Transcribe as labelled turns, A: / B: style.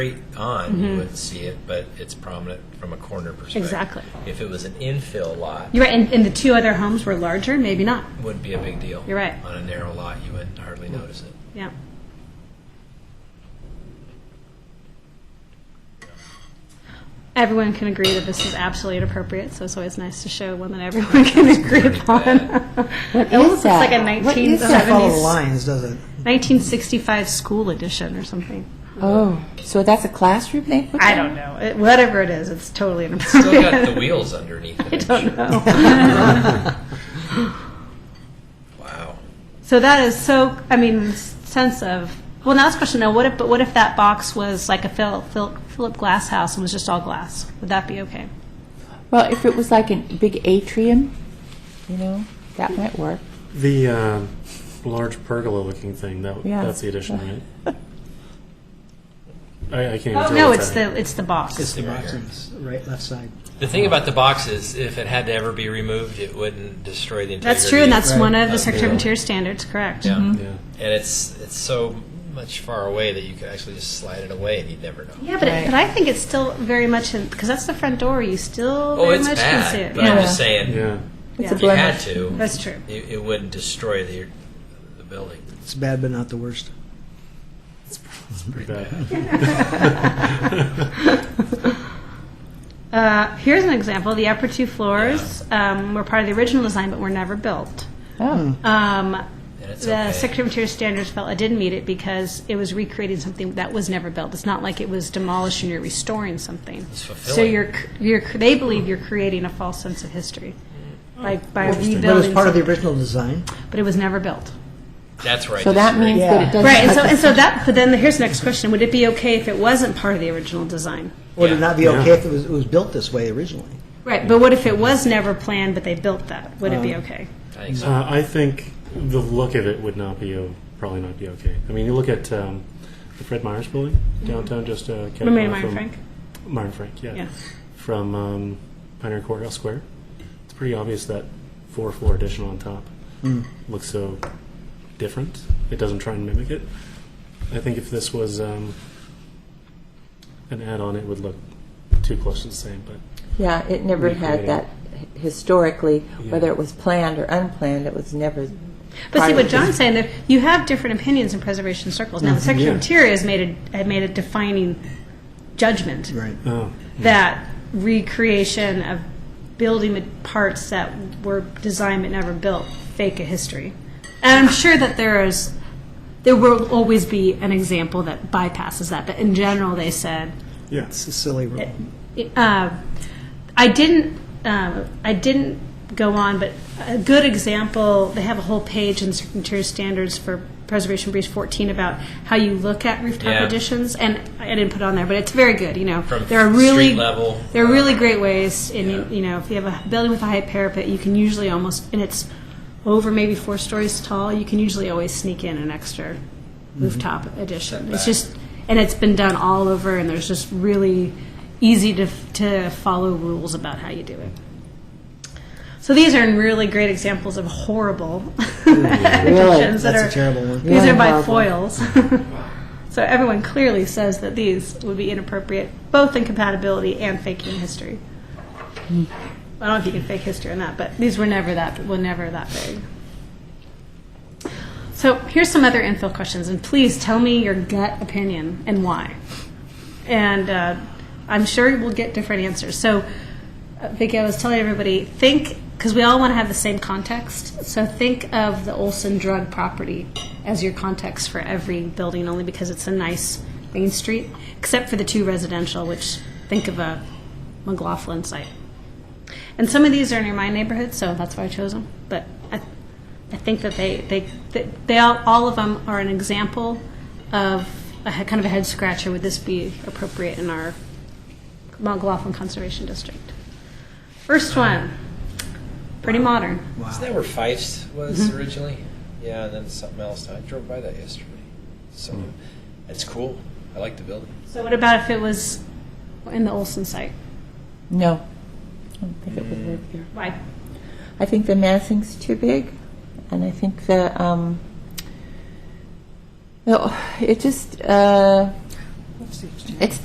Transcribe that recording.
A: straight on,
B: Mm-hmm.
A: you would see it, but it's prominent from a corner perspective.
B: Exactly.
A: If it was an infill lot,
B: You're right, and, and the two other homes were larger, maybe not.
A: wouldn't be a big deal.
B: You're right.
A: On a narrow lot, you would hardly notice it.
B: Yeah. Everyone can agree that this is absolutely inappropriate, so it's always nice to show one that everyone can agree upon.
C: What
B: It almost
C: is
B: looks
C: that?
B: like a
C: What is that?
B: 1970s.
D: Follow lines, does it?
B: 1965 school edition or something.
C: Oh, so that's a classroom they put
B: I
C: down?
B: don't know. It- whatever it is, it's totally
A: Still got the
B: inappropriate.
A: wheels underneath it.
B: I don't know.
A: Wow.
B: So that is so. I mean, s- sense of well, now this question now. What if? But what if that box was like a Phil, Phil, Philip Glass house and was just all glass? Would that be okay?
C: Well, if it was like a big atrium, you know, that might work.
E: The uh, large pergola-looking thing. That
C: Yeah.
E: that's the addition, right? I, I can't. Even tell
B: Oh, no,
E: what's
B: it's
E: that.
B: the it's the box.
D: It's the
A: Right
D: box
A: here.
D: on the right, left side.
A: The thing about the box is, if it had to ever be removed, it wouldn't destroy the integrity.
B: that's true, and that's
D: Right.
B: one of the
A: That's
B: Secretary of
A: cool.
B: Interior standards. Correct.
A: Yeah.
E: Yeah.
A: And it's it's so much far away that you could actually just slide it away and you'd never know.
B: Yeah, but,
C: Right.
B: it, but I think it's still very much in because that's the front door. You still
A: Oh,
B: very
A: it's
B: much can
A: bad,
B: see it.
A: but
B: Yeah.
A: I'm just saying,
E: Yeah.
C: It's
B: Yeah.
C: a
A: if you had
C: blemish.
A: to,
B: That's true.
A: it, it wouldn't destroy the the building.
D: It's bad, but not the worst.
E: Pretty bad.
B: Uh, here's an example. The upper two floors um, were part of the original design, but were never built.
C: Oh,
B: Um,
A: And it's
B: The
A: okay.
B: Secretary of Interior standards felt it didn't meet it because it was recreating something that was never built. It's not like it was demolishing, you're restoring something.
A: It's
B: So
A: fulfilling.
B: you're, you're, they believe you're creating a false sense of history by, by rebuilding.
D: But it was part of the
B: something,
D: original design.
B: But it was never built.
A: That's right.
C: so that means that
D: Yeah.
C: it doesn't.
B: Right, and so, and so that, but then here's the next question. Would it be okay if it wasn't part of the original design?
D: Would
A: Yeah.
D: it not be okay if it was, it was built this way originally?
B: Right, but what if it was never planned, but they built that? Would it be okay?
A: I think so.
E: Uh, I think the look of it would not be o- probably not be okay. I mean, you look at um, the Fred Myers building downtown, just uh, cat-
B: Mm-hmm. Remember
E: uh,
B: Meyer
E: from-
B: Frank?
E: Meyer Frank, yeah,
B: Yeah.
E: from um, Pioneer Courthouse Square. It's pretty obvious that four floor addition on top
D: Hmm.
E: looks so different. It doesn't try and mimic it. I think if this was um, an add on, it would look too close to the same. But
C: Yeah, it never
E: Recreating.
C: had that h- historically,
E: Yeah.
C: whether it was planned or unplanned, it was never.
B: But see,
C: part
B: what
C: of-
B: John's saying, that you have different opinions in preservation circles. Now, the Secretary of
E: Mm-hmm. Yeah.
B: Interior has made a, had made a defining judgment
D: Right.
E: oh,
B: that recreation of building with parts that were designed but never built fake a history. And I'm sure that there is, there will always be an example that bypasses that. But in general, they said
E: yeah,
D: It's a silly rule.
B: uh, I didn't. Um, I didn't go on, but a good example. They have a whole page in Circuit Interior Standards for Preservation Briefs 14 about how you look at rooftop
A: Yeah.
B: additions, and I didn't put it on there, but it's very good. You know,
A: From
B: there are really
A: street level,
B: there are really
A: uh,
B: great ways. And
A: yeah.
B: you know, if you have a building with a high parapet, you can usually almost and it's over maybe four stories tall. You can usually always sneak in an extra
A: Mm-hmm.
B: rooftop addition. It's just, and it's been done all over, and there's just really easy to, to follow rules about how you do it. So these are really great examples of horrible additions that
D: That's a
B: are.
D: terrible one.
B: These
C: Yeah,
B: are by
C: horrible.
B: foils. so everyone clearly says that these would be inappropriate, both in compatibility and faking history. I don't know if you can fake history or not, but these were never that were never that big. So here's some other infill questions, and please tell me your gut opinion and why. And uh, I'm sure we'll get different answers. So, uh, Vicky, I was telling everybody think because we all want to have the same context. So think of the Olson drug property as your context for every building, only because it's a nice main street, except for the two residential, which think of a McLaughlin site. And some of these are near my neighborhood, so that's why I chose them. But I, I think that they, they, they, they all, all of them are an example of a he- kind of a head scratcher. Would this be appropriate in our McLaughlin Conservation District? First one, pretty modern.
A: Isn't that where Fife's was
C: Mm-hmm.
A: originally? Yeah, and then something else. I drove by that yesterday. So it's cool. I like the building.
B: So what about if it was in the Olson site?
C: No, I don't think it would work there.
B: Why?
C: I think the Mansing's too big, and I think the um, no, it just oh, uh, It's